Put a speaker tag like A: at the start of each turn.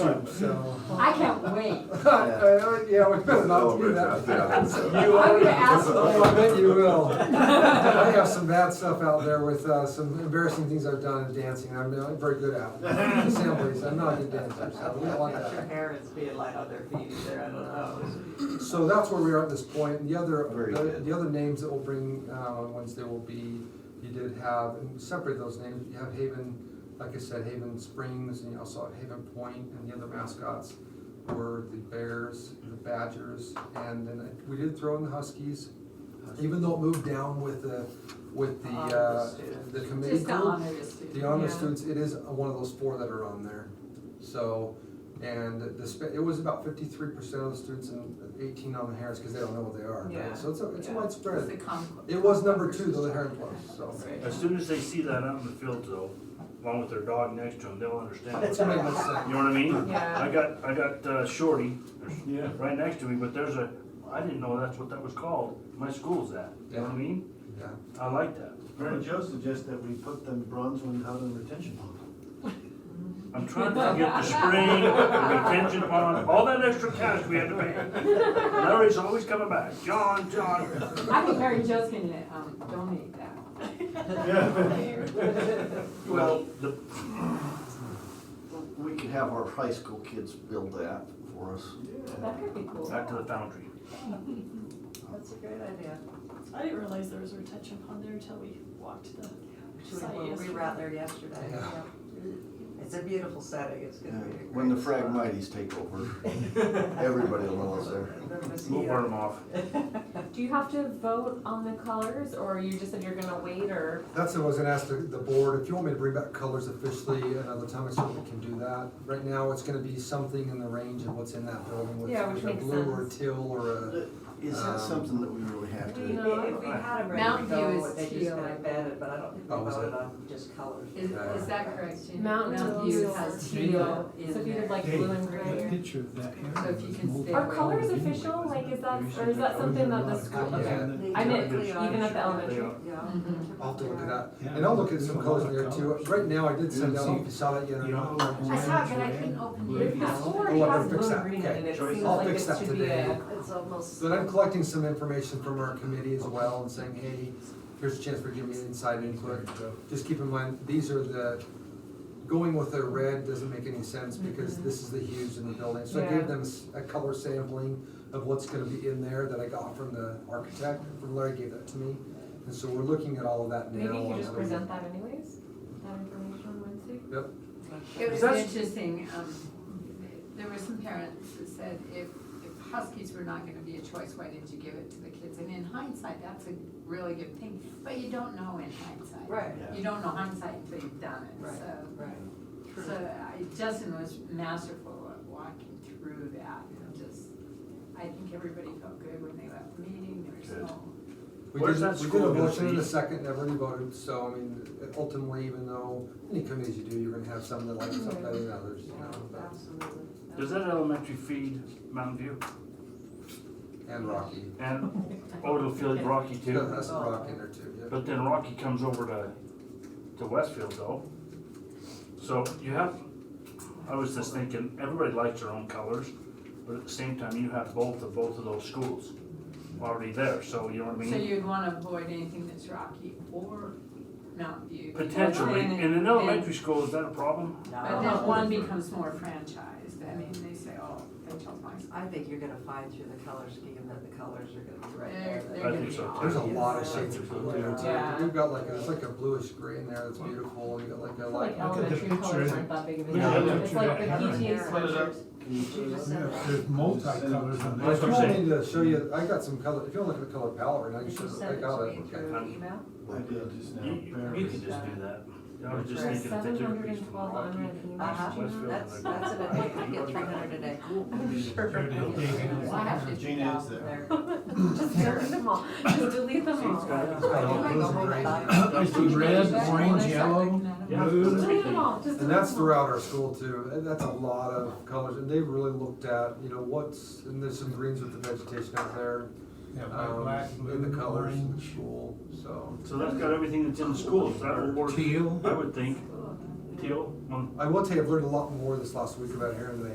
A: fun, so.
B: I can't wait.
A: Uh, Yeah, we better not do that. You
B: I'm
A: already,
B: gonna ask
A: oh, I bet you will. I have some bad stuff out there with, uh, some embarrassing things I've done in dancing, I'm not very good at. Assemblies, I'm not a good dancer, so we don't want
C: If Your
A: that.
C: parents being like other feet there, I don't know.
A: So that's where we are at this point, and the other,
D: Very
A: the
D: good.
A: the other names that we'll bring, uh, on Wednesday will be, you did have, and separate those names, you have Haven, like I said, Haven Springs, and you also have Haven Point, and the other mascots were the Bears, the Badgers, and then we did throw in the Huskies, even though it moved down with the, with the,
C: Honor
A: uh,
C: students.
A: the committee
B: Just to
A: group.
B: honor the students.
A: The honor
C: Yeah.
A: students, it is one of those four that are on there. So, and the, sp- it was about fifty-three percent of the students and eighteen on the Harris, because they don't know what they are,
C: Yeah.
A: right? So it's, a- it's
C: Yeah.
B: It's the
A: widespread.
B: conquest.
A: It was number two, though, the Heron Club, so.
E: As
C: Right.
E: soon as they see that out in the field though, along with their dog next to them, they'll understand. what's
A: That's what
E: going
A: I
E: on.
A: was saying.
E: You know what I mean? I
C: Yeah,
E: got, I got uh, Shorty, right next to me, but there's a, I didn't know that's what that was called. My school's that, you know what I mean?
A: Yeah.
E: I like that.
F: Mary Jo suggests that we put the bronze one out in retention pond.
E: I'm trying to get the spring, the retention pond, all that extra cash we had to pay. Larry's always coming back, John, John.
B: I think Mary Jo's gonna, um, donate that.
E: Well, the,
D: We could have our high school kids build that for us.
B: That could be cool.
E: back to the foundry.
C: that's a great idea.
G: I didn't realize there was a retention pond there until we walked the
C: Actually, when we were out there yesterday.
A: Yeah.
C: It's a beautiful setting, it's gonna be a great.
D: When the
C: spot.
D: Phragmites take over, everybody will know it's there.
C: There was
E: We'll
C: you.
E: burn them off.
H: Do you have to vote on the colors, or you just said you're gonna wait, or?
A: That's what I was gonna ask the, the board, if you want me to bring back colors officially another time, I certainly can do that. Right now, it's gonna be something in the range of what's in that building, which
H: Yeah, which
A: is a
H: makes
A: blue or a
H: sense.
A: teal or a,
D: Is that
A: Um,
D: something that we really have
C: We-
D: to?
C: If we had them ready to
B: Mountain View
C: go,
B: is
C: they just
B: teal.
C: kind of banded, but I don't think we
A: Oh, was
C: voted
A: it?
C: on just colors.
B: Is, is that correct, Jim?
H: Mountain View
B: has
H: teal.
B: teal in
H: So if you
B: there.
H: did like blue and gray?
I: picture of that
B: So if you can stay.
H: Are colors official, like, is that, or is that something that the school,
A: Yeah.
H: I meant,
E: They are.
H: even at the elementary?
C: Yeah.
B: Mhm.
A: I'll have to look at that. And I'll look at some colors in there too. Right now, I did send out, I don't know if you saw that yet or not.
B: I saw it, but I couldn't open
H: If
B: it.
H: the school already
A: Oh, I gotta
H: has
A: fix
H: blue
A: that.
H: and green,
A: Okay.
H: and it
E: Joyce.
H: seems
A: I'll
H: like
A: fix
H: this
A: that
H: should be
A: today.
H: a.
C: It's almost.
A: But I'm collecting some information from our committee as well and saying, hey, here's a chance for giving you inside input. Just keep in mind, these are the, going with the red doesn't make any sense because this is the hues in the building. So I
H: Mm-hmm. Yeah.
A: gave them s- a color sampling of what's gonna be in there that I got from the architect, from Larry gave that to me. And so we're looking at all of that now.
H: Maybe you
A: on
H: could just
A: the-
H: present that anyways, that information on Wednesday?
A: Yep,
B: It was
E: That's-
B: interesting, um, there were some parents that said, if, if Huskies were not gonna be a choice, why didn't you give it to the kids? And in hindsight, that's a really good thing, but you don't know in hindsight.
C: Right,
B: You don't know hindsight until you've done it,
C: Right.
B: so.
C: right.
B: So I, Justin was masterful at walking through that, and just, I think everybody felt good when they left the meeting, there was
E: Good.
B: no.
A: We
E: Where's
A: did,
E: that
A: we did
E: school
A: a
E: gonna
A: motion in
E: be?
A: a second, never really voted, so I mean, ultimately, even though any committees you do, you're gonna have some that like
H: Mm-hmm.
A: some better than others, you know, but-
C: Absolutely.
E: Does that elementary feed Mountain View?
A: and Rocky.
E: And, oh, it'll feel like Rocky
A: Yeah,
E: too?
A: That's a rock in there too, yeah.
E: But then Rocky comes over to, to Westfield though. So you have, I was just thinking, everybody likes their own colors, but at the same time, you have both of both of those schools already there, so you know what I
B: So
E: mean?
B: you'd wanna avoid anything that's rocky or Mountain View.
E: Potentially,
B: And-
E: in an
B: and-
E: elementary school, is that a problem?
H: Oh,
B: But
C: No,
B: then one becomes more franchised, I mean, they say, oh, they chose mine.
C: I think you're gonna find through the color scheme that the colors are gonna be right
B: They're-
C: there.
B: they're
C: that
E: I
B: gonna
E: think
B: be
E: so, too.
A: There's a
C: obvious.
A: lot of shades of blue there
B: Yeah.
A: too. We've got like, a- it's like a bluish green there that's beautiful, you got like a
H: I feel
A: light.
H: like elementary
I: picture,
H: colors
I: isn't
H: aren't that big of a
I: Yeah,
H: deal,
I: look
H: it's
I: at
H: like the
I: that.
H: PTA
C: Put it up.
H: sweatshirts.
C: She just said that.
I: There's multi-colors on
A: But if
E: That's
A: you
E: what I'm
I: that.
A: want
E: saying.
A: me to show you, I got some color, if you want to look at the color palette, right now,
C: Did
A: you
C: you
A: should, I
C: send it
A: got
C: to
A: it.
C: me
A: okay.
C: through email?
F: I did uh, just now.
E: You, you you can just do that. I was just
C: For
E: thinking if they took a piece from
H: 712
E: Rocky.
H: unread emails,
C: Uh-huh.
E: Westfield, and
C: That's,
E: they-
C: that's an idea, I get three hundred a day. I'm sure.
B: Well, I have to
F: Gene
B: do
F: is
B: that.
C: There.
H: Just delete them all, just delete them all.
A: It's got all
C: Like
A: blues
C: a
A: and
C: whole
A: greens.
C: bottle.
I: I see red,
B: That's what I
I: orange,
B: start
I: yellow,
B: looking at 'em.
E: Yeah.
I: blue.
H: Delete them all, just
A: And
H: delete
A: that's
H: them all.
A: throughout our school too, and that's a lot of colors, and they really looked at, you know, what's, and there's some greens with the vegetation out there.
I: Yeah,
A: um,
I: black,
A: And the
I: blue,
A: colors in the
I: orange,
A: school, so.
E: So that's got everything that's in the schools, that will work,
I: teal.
E: I would think, teal, one
A: I will tell you, I've learned a lot more this last week about Heron than I